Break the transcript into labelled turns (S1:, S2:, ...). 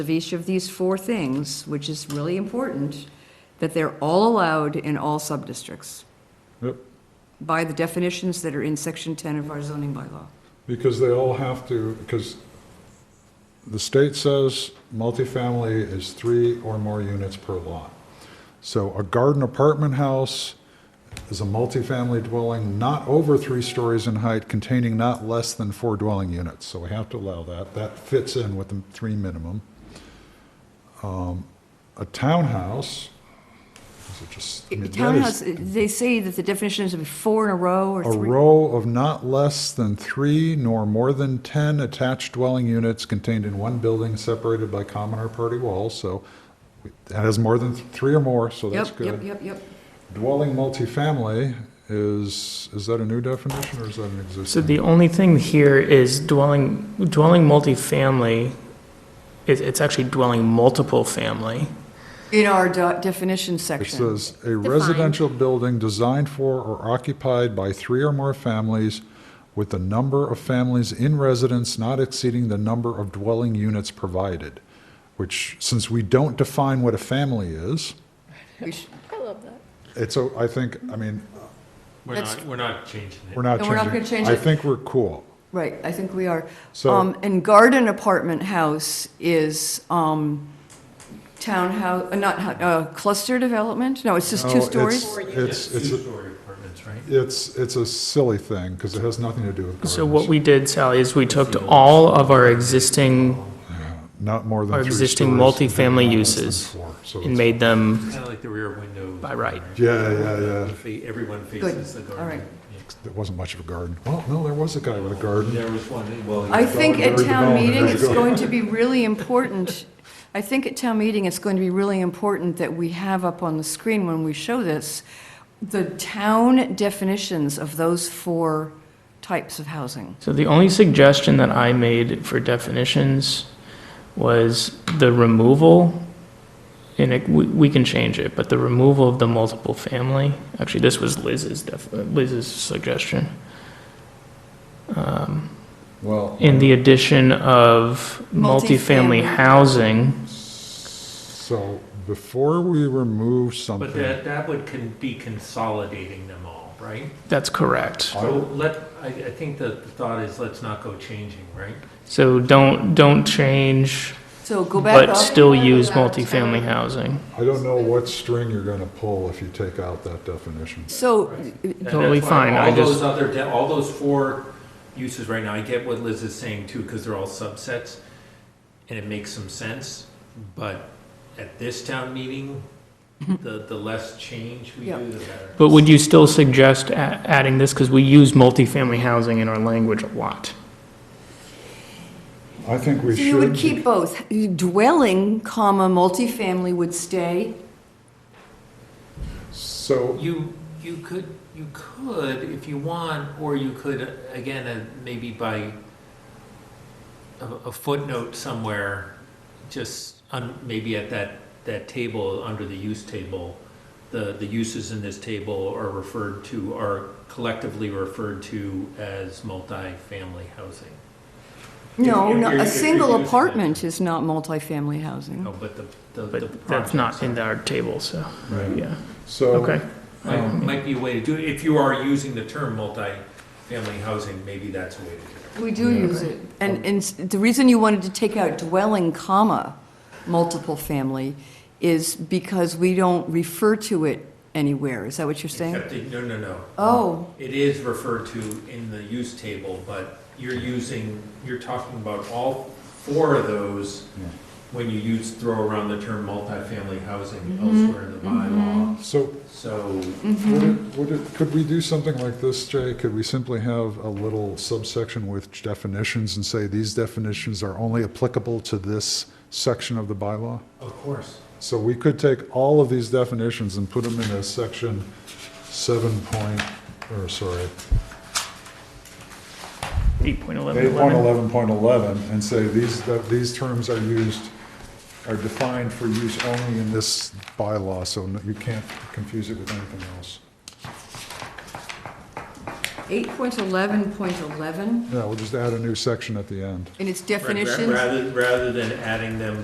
S1: of each of these four things, which is really important, that they're all allowed in all subdistricts
S2: Yep,
S1: by the definitions that are in section 10 of our zoning bylaw.
S2: because they all have to, because the state says multifamily is three or more units per lot. So a garden apartment house is a multifamily dwelling not over three stories in height containing not less than four dwelling units. So we have to allow that. That fits in with the three minimum. Um, A townhouse, is it just? I mean, that is-
S1: Townhouse, they say that the definition is four in a row or
S2: A
S1: three.
S2: row of not less than three nor more than 10 attached dwelling units contained in one building separated by common or party walls, so that has more than three or more, so that's
S1: Yep, yep,
S2: good.
S1: yep, yep.
S2: Dwelling multifamily is, is that a new definition or is that an
S3: So
S2: existing?
S3: the only thing here is dwelling, dwelling multifamily, it, it's actually dwelling multiple family.
S1: In our do- definition
S2: It
S1: section.
S2: says, "A residential building designed for or occupied by three or more families with the number of families in residence not exceeding the number of dwelling units provided." Which, since we don't define what a family is,
S1: We should-
S2: It's, a- I think, I mean,
S4: We're
S1: That's-
S4: not, we're not changing it.
S2: we're not
S1: No,
S2: changing.
S1: we're not gonna change
S2: I
S1: it.
S2: think we're cool.
S1: Right, I think we are.
S2: So-
S1: Um, And garden apartment house is um, townhouse, uh, not, hou- uh, cluster development? No, it's just
S2: No,
S1: two
S2: Oh,
S1: stories?
S2: it's- It's,
S4: Yes,
S2: it's, a-
S4: Two-story apartments, right?
S2: it's, it's a silly thing, because it has nothing to do with
S3: So what
S2: gardens.
S3: we did, Sally, is we took all of our existing
S2: Not more than
S3: our
S2: three
S3: existing
S2: stories and
S3: multifamily
S2: less than
S3: uses
S2: four, so
S3: and
S2: it's-
S3: made them,
S4: Kind of like the rear windows.
S3: By right.
S2: Yeah, yeah, yeah.
S4: Fe- Everyone faces the
S1: all
S4: garden.
S1: right.
S2: There wasn't much of a garden. Well, no, there was a guy with a
S4: Yeah.
S2: garden.
S4: There was one, well.
S1: I think at town
S2: Very development,
S1: meeting,
S2: there you
S1: it's
S2: go.
S1: going to be really important, I think at town meeting, it's going to be really important that we have up on the screen when we show this, the town definitions of those four types of housing.
S3: so the only suggestion that I made for definitions was the removal, and it, we, we can change it, but the removal of the multiple family, actually, this was Liz's def, Liz's suggestion. Um,
S2: Well,
S3: in the addition of
S1: Multifamily.
S3: multifamily housing.
S2: um, so before we remove
S4: But uh,
S2: something,
S4: that, that would can be consolidating them all, right?
S3: That's correct.
S2: I
S4: So
S2: will-
S4: let, I, I think that the thought is let's not go changing, right?
S3: So don't, don't change,
S1: So go back
S3: but
S1: up,
S3: still use multifamily housing.
S2: I don't know what string you're going to pull if you take out that definition.
S1: so,
S4: And that's
S3: Totally
S4: why
S3: fine, I
S4: All those
S3: just-
S4: other, de- all those four uses right now, I get what Liz is saying too, because they're all subsets, and it makes some sense, but at this town meeting, the, the less change we
S1: Yeah.
S4: do, the better.
S3: But would you still suggest a- adding this? Because we use multifamily housing in our language a lot.
S2: I think we
S1: so
S2: should.
S1: you would keep both, dwelling, comma, multifamily would stay,
S2: So
S4: You, you could, you could, if you want, or you could, again, uh, maybe by a a footnote somewhere, just, un- maybe at that, that table, under the use table, the, the uses in this table are referred to, are collectively referred to as multifamily housing.
S1: No,
S4: If- if
S1: no,
S4: you're-
S1: a
S4: if you're
S1: single
S4: using it.
S1: apartment is not multifamily housing.
S4: No, Oh, but the, the. the
S3: But that's not
S4: projects
S3: in our table, so,
S2: Right.
S3: yeah,
S2: So.
S3: okay.
S4: Might, might be a way to do it, if you are using the term multifamily housing, maybe that's a way to do it.
S1: We do use it. And, and s- the reason you wanted to take out dwelling, comma, multiple family is because we don't refer to it anywhere. Is that what you're saying?
S4: Except it- No, no, no.
S1: Oh,
S4: It is referred to in the use table, but you're using, you're talking about all four of those
S2: Yeah.
S4: when you use, throw around the term multifamily housing
S1: Mm-hmm.
S4: elsewhere in the bylaw.
S2: So
S4: So,
S2: would it, would it, could we do something like this, Jay? Could we simply have a little subsection with definitions and say these definitions are only applicable to this section of the bylaw?
S4: of course.
S2: So we could take all of these definitions and put them in a section seven point, or sorry,
S3: Eight point eleven
S2: eight point
S3: eleven.
S2: eleven point eleven, and say these, that these terms are used, are defined for use only in this bylaw, so no- you can't confuse it with anything else.
S1: 8.11.11,
S2: Yeah, we'll just add a new section at the end.
S1: and its
S4: Ra- ra-
S1: definitions.
S4: Rather, rather than adding them